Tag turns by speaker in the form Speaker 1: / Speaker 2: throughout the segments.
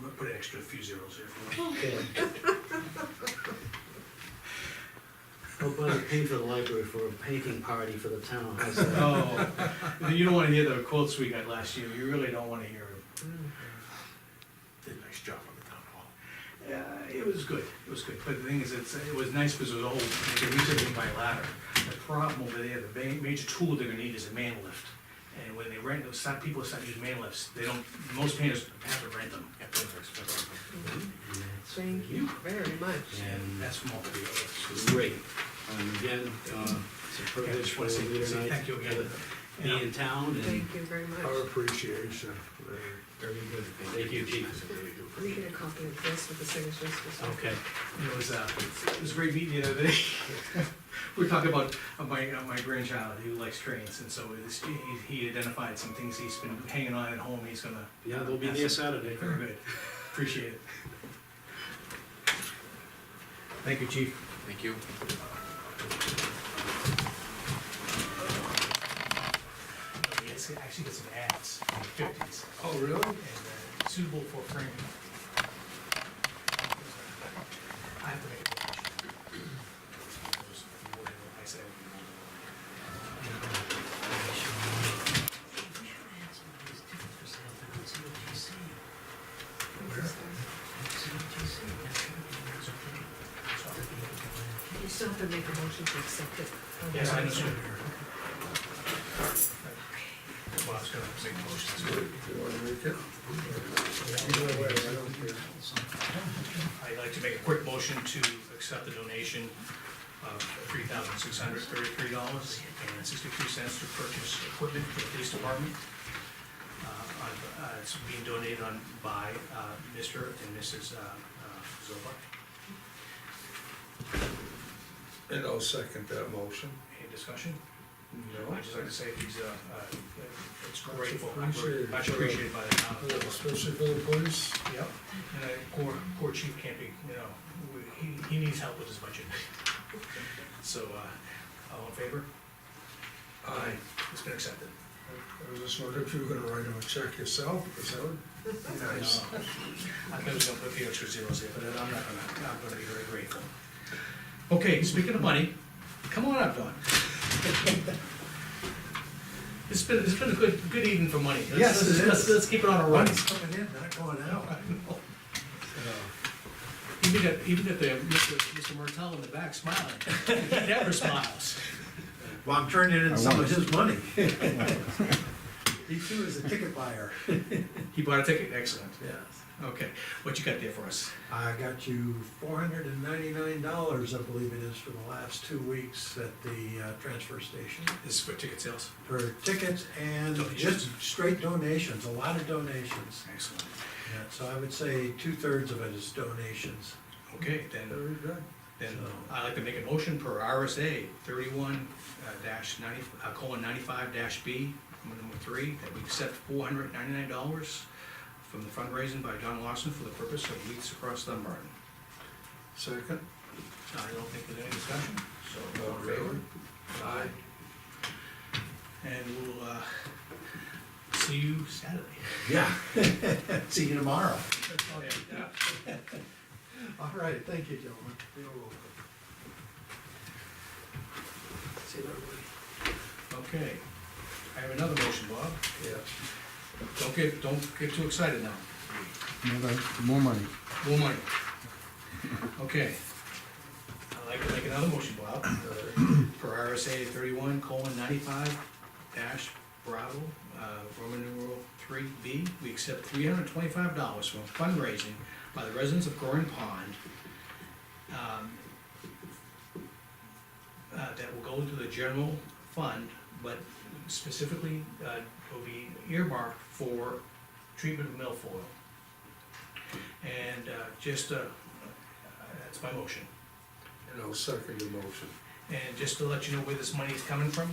Speaker 1: might put an extra few zeros there for me.
Speaker 2: Okay. Hope I pay for the library for a painting party for the town, how's that?
Speaker 1: Oh, you don't wanna hear the quotes we got last year, you really don't wanna hear them. Did a nice job on the town hall. Uh, it was good, it was good, but the thing is, it's, it was nice because it was old, they could reach everything by ladder. The problem over there, the ma- major tool they're gonna need is a man lift. And when they rent, those, some people start using man lifts, they don't, most painters have to rent them.
Speaker 3: Thank you very much.
Speaker 1: And
Speaker 2: And
Speaker 1: that's from all the dealers.
Speaker 2: great, and again, uh, it's a
Speaker 1: Yeah,
Speaker 2: privilege
Speaker 1: just
Speaker 2: for
Speaker 1: wanna
Speaker 2: the
Speaker 1: say-
Speaker 2: leader
Speaker 1: say
Speaker 2: and I
Speaker 1: thank you
Speaker 2: to
Speaker 1: again.
Speaker 2: be in town and
Speaker 3: Thank you very
Speaker 4: Our
Speaker 3: much.
Speaker 4: appreciation, uh, very good.
Speaker 2: Thank you, chief.
Speaker 3: Can we get a copy of this with the signatures for some?
Speaker 2: Okay,
Speaker 1: It was, uh, it was a great meeting the other day. We were talking about uh, my, uh, my grandchild who likes trains, and so this, he, he identified some things he's been hanging on at home, he's gonna,
Speaker 2: yeah, they'll be there Saturday.
Speaker 1: very good, appreciate it. Thank you, chief.
Speaker 5: Thank you.
Speaker 1: Yes, it actually got some ads from the fifties,
Speaker 4: Oh, really?
Speaker 1: and uh, suitable for framing. I have to make a motion. I said.
Speaker 3: You still have to make a motion to accept it.
Speaker 1: Yes, I understand. Well, I was gonna make a motion,
Speaker 4: You wanna make it? Either way, I don't care.
Speaker 1: so I'd like to make a quick motion to accept the donation of three thousand six hundred thirty-three dollars and sixty-three cents to purchase equipment for the police department. Uh, on- uh, It's being donated on by uh, Mr. and Mrs. uh, uh, Zoba.
Speaker 4: And I'll second that motion.
Speaker 1: Any discussion?
Speaker 4: No.
Speaker 1: I'd just like to say he's, uh, uh, it's
Speaker 4: Much
Speaker 1: grateful,
Speaker 4: appreciated.
Speaker 1: much appreciated by the town. of Zoba.
Speaker 4: Especially for the police.
Speaker 1: Yep, and I, poor, poor chief can't be, you know, we- he, he needs help with his budget. So, uh, all in favor?
Speaker 4: Aye.
Speaker 1: It's been accepted.
Speaker 4: I was just wondering if you were gonna write him a check yourself, because that would be nice.
Speaker 1: No, I thought it was gonna put a few extra zeros there, but I'm not gonna, I'm gonna be very grateful. Okay, speaking of money, come on up, Don. It's been, it's been a good, good evening for money. Let's-
Speaker 4: Yes, it
Speaker 1: Let's,
Speaker 4: is.
Speaker 1: let's keep it on a run.
Speaker 4: Money's coming in, not going out.
Speaker 1: Even at, even at the, Mr. Mr. Martell in the back smiling, he never smiles.
Speaker 6: Well, I'm turning in some of his money.
Speaker 4: He too is a ticket buyer.
Speaker 1: He bought a ticket, excellent.
Speaker 6: Yes.
Speaker 1: Okay, what you got there for us?
Speaker 6: I got you four hundred and ninety-nine dollars, I believe it is, for the last two weeks at the uh, transfer station
Speaker 1: This is for ticket sales.
Speaker 6: for tickets and
Speaker 1: Donations.
Speaker 6: just straight donations, a lot of donations.
Speaker 1: Excellent.
Speaker 6: Yeah, So I would say two-thirds of it is donations.
Speaker 1: Okay, then,
Speaker 4: Very good.
Speaker 1: then I'd like to make a motion per RSA thirty-one uh, dash ninety, uh, colon ninety-five dash B, number three, that we accept four hundred ninety-nine dollars from the fundraising by John Lawson for the purpose of Youths Across Dunbarton.
Speaker 4: Second?
Speaker 1: I don't think there's any discussion, so all in favor?
Speaker 4: Aye.
Speaker 1: And we'll, uh, see you Saturday.
Speaker 6: Yeah. See you tomorrow.
Speaker 1: Oh, yeah.
Speaker 6: All right, thank you, gentlemen. You're welcome.
Speaker 4: See everybody.
Speaker 1: Okay. I have another motion, Bob.
Speaker 4: Yeah.
Speaker 1: Don't get, don't get too excited now.
Speaker 7: More money.
Speaker 1: More money. Okay. I'd like to make another motion, Bob, Uh, for RSA thirty-one colon ninety-five dash Bravo, uh, Roman numeral three B. We accept three hundred and twenty-five dollars from fundraising by the residents of Goring Pond. um, Uh, that will go into the general fund, but specifically, uh, will be earmarked for treatment of milfoil. And uh, just, uh, that's my motion.
Speaker 4: And I'll second the motion.
Speaker 1: And just to let you know where this money is coming from,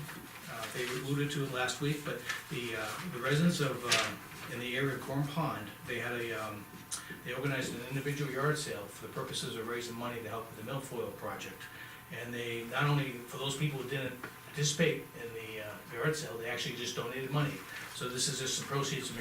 Speaker 1: uh, they alluded to it last week, but the, uh, the residents of, uh, in the area of Corn Pond, they had a, um, they organized an individual yard sale for the purposes of raising money to help with the milfoil project. And they, not only, for those people who didn't participate in the uh, yard sale, they actually just donated money. So this is just the proceeds from